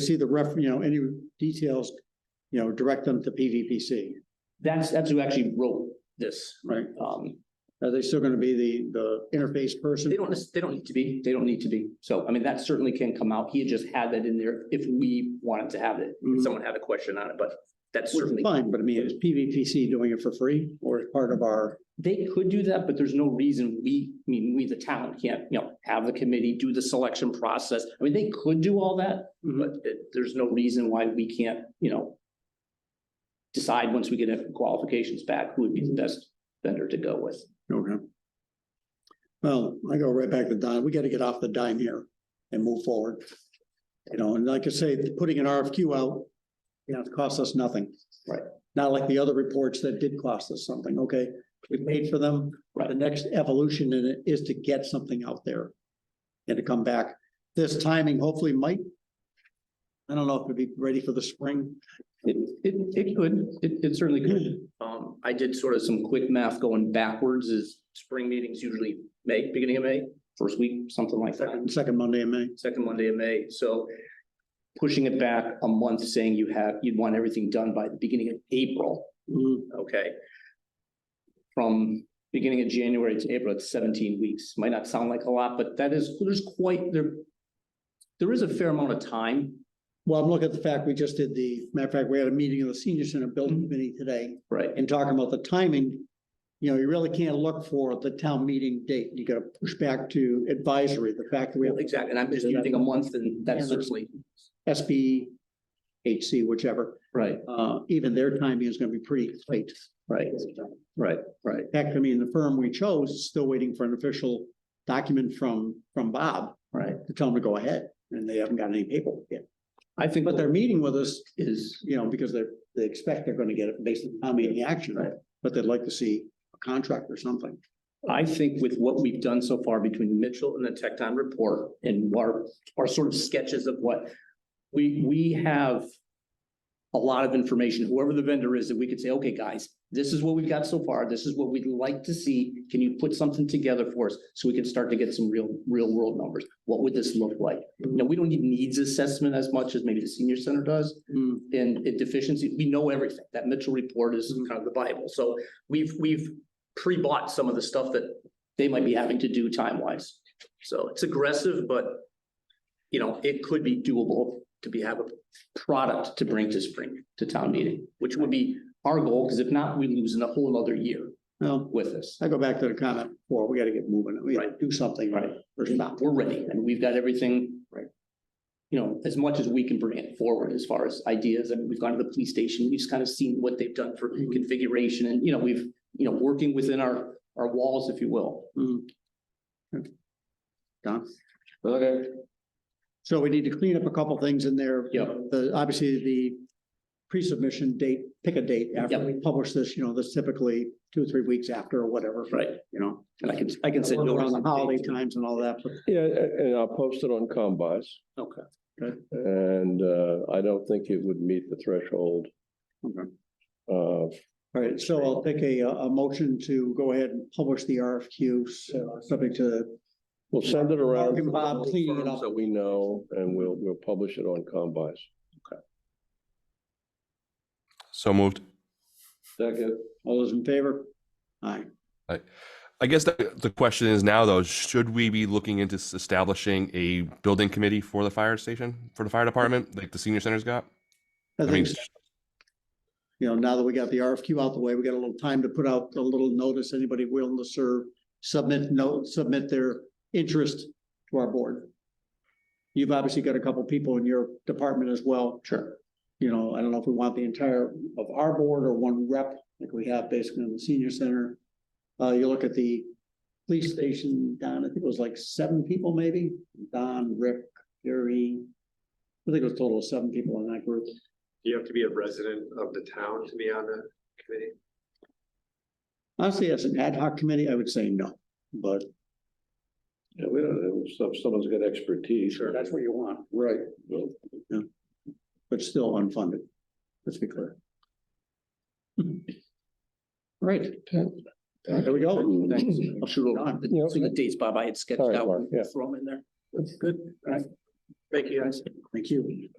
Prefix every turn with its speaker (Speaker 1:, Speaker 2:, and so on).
Speaker 1: see the ref, you know, any details, you know, direct them to PVPC,
Speaker 2: That's, that's who actually wrote this.
Speaker 1: right?
Speaker 2: Um,
Speaker 1: Are they still gonna be the, the interface person?
Speaker 2: they don't, nec- they don't need to be, they don't need to be. So, I mean, that certainly can come out. He had just had that in there if we wanted to have it.
Speaker 1: Mhm.
Speaker 2: If someone had a question on it, but that's
Speaker 1: Which is
Speaker 2: certainly,
Speaker 1: fine, but I mean, is PVPC doing it for free or as part of our,
Speaker 2: they could do that, but there's no reason we, I mean, we, the town can't, you know, have the committee do the selection process. I mean, they could do all that,
Speaker 1: Mm-hmm.
Speaker 2: but it- there's no reason why we can't, you know, decide once we get qualifications back who would
Speaker 1: Mm-hmm.
Speaker 2: be the best vendor to go with.
Speaker 1: okay? Well, I go right back to Don, we gotta get off the dime here and move forward. You know, and like I say, putting an RFQ out, you know, it costs us nothing.
Speaker 2: Right.
Speaker 1: Not like the other reports that did cost us something, okay? We paid for them,
Speaker 2: Right.
Speaker 1: the next evolution in it is to get something out there and to come back. This timing hopefully might, I don't know if it'd be ready for the spring.
Speaker 2: It, it, it could, it, it certainly could.
Speaker 1: Hmm.
Speaker 2: Um, I did sort of some quick math going backwards is spring meetings usually May, beginning of May, first week, something like that,
Speaker 1: Second, second Monday in May.
Speaker 2: second Monday of May, so. Pushing it back a month, saying you have, you'd want everything done by the beginning of April,
Speaker 1: Mhm.
Speaker 2: okay? From beginning of January to April, it's seventeen weeks. Might not sound like a lot, but that is, there's quite, there. There is a fair amount of time,
Speaker 1: Well, I'm looking at the fact, we just did the, matter of fact, we had a meeting of the senior center building committee today
Speaker 2: right?
Speaker 1: and talking about the timing. You know, you really can't look for the town meeting date. You gotta push back to advisory, the fact that we have
Speaker 2: Exactly, and I'm just using a month and that's
Speaker 1: Yeah, but-
Speaker 2: certainly,
Speaker 1: SBHC, whichever.
Speaker 2: right,
Speaker 1: Uh, even their timing is gonna be pretty tight.
Speaker 2: right. Right, right.
Speaker 1: Heck, I mean, the firm we chose is still waiting for an official document from, from Bob
Speaker 2: Right.
Speaker 1: to tell them to go ahead, and they haven't got any paperwork yet.
Speaker 2: I think
Speaker 1: But
Speaker 2: what
Speaker 1: they're
Speaker 2: there
Speaker 1: meeting with us,
Speaker 2: is,
Speaker 1: you know, because they're, they expect they're gonna get it based on how many action,
Speaker 2: Right.
Speaker 1: but they'd like to see a contract or something.
Speaker 2: I think with what we've done so far between Mitchell and the Tecton report and our, our sort of sketches of what we, we have a lot of information, whoever the vendor is, that we could say, okay, guys, this is what we've got so far. This is what we'd like to see. Can you put something together for us so we can start to get some real, real world numbers? What would this look like? Now, we don't need needs assessment as much as maybe the senior center does.
Speaker 1: Mm,
Speaker 2: and it deficiency, we know everything. That Mitchell report is kind of the Bible. So we've, we've pre-bought some of the stuff that they might be having to do time-wise. So it's aggressive, but you know, it could be doable to be, have a product to bring to spring, to town meeting, which would be our goal, because if not, we lose in a whole other year
Speaker 1: Well,
Speaker 2: with this.
Speaker 1: I go back to the comment before, we gotta get moving, we gotta
Speaker 2: Right.
Speaker 1: do something.
Speaker 2: Right.
Speaker 1: Or stop.
Speaker 2: We're ready and we've got everything.
Speaker 1: Right.
Speaker 2: You know, as much as we can bring it forward as far as ideas. I mean, we've gone to the police station, we've just kind of seen what they've done for configuration and, you know, we've, you know, working within our, our walls, if you will.
Speaker 1: Mm. Don?
Speaker 2: Okay.
Speaker 1: So we need to clean up a couple things in there.
Speaker 2: Yep.
Speaker 1: The, obviously, the pre-submission date, pick a date after
Speaker 2: Yep.
Speaker 1: we publish this, you know, that's typically two or three weeks after or whatever.
Speaker 2: Right.
Speaker 1: You know.
Speaker 2: And I can, I can send.
Speaker 1: Around
Speaker 2: notice
Speaker 1: the
Speaker 2: of
Speaker 1: holiday
Speaker 2: date.
Speaker 1: times and all that, but
Speaker 3: Yeah, a- and I'll post it on Combis,
Speaker 2: Okay.
Speaker 3: and uh, I don't think it would meet the threshold.
Speaker 1: Okay.
Speaker 3: Uh,
Speaker 1: All right, so I'll take a, uh, a motion to go ahead and publish the RFQs, uh, subject to,
Speaker 3: We'll send it around.
Speaker 1: Mark and Bob cleaning it up.
Speaker 3: So we know, and we'll, we'll publish it on Combis.
Speaker 4: So moved.
Speaker 3: Second.
Speaker 1: all those in favor? Aye.
Speaker 4: I guess the, the question is now though, should we be looking into s- establishing a building committee for the fire station, for the fire department, like the senior center's got?
Speaker 1: I
Speaker 4: I mean,
Speaker 1: think, you know, now that we got the RFQ out the way, we got a little time to put out a little notice, anybody willing to serve, submit note, submit their interest to our board. You've obviously got a couple people in your department as well.
Speaker 2: Sure.
Speaker 1: You know, I don't know if we want the entire of our board or one rep, like we have basically in the senior center. Uh, you look at the police station, Don, I think it was like seven people maybe, Don, Rick, Gary. I think it was a total of seven people in that group.
Speaker 5: Do you have to be a resident of the town to be on the committee?
Speaker 1: Honestly, as an ad hoc committee, I would say no, but
Speaker 3: Yeah, we don't know, some, someone's got expertise.
Speaker 1: that's what you want,
Speaker 3: Right.
Speaker 1: but still unfunded. Let's be clear. Right. There we go.
Speaker 2: Thanks. I'll shoot over
Speaker 1: Done.
Speaker 2: the, so the dates, Bob, I had sketched
Speaker 3: All right,
Speaker 2: out,
Speaker 3: Mark, yeah.
Speaker 2: throw them in there. Good. All right. Thank you, guys.
Speaker 1: Thank you.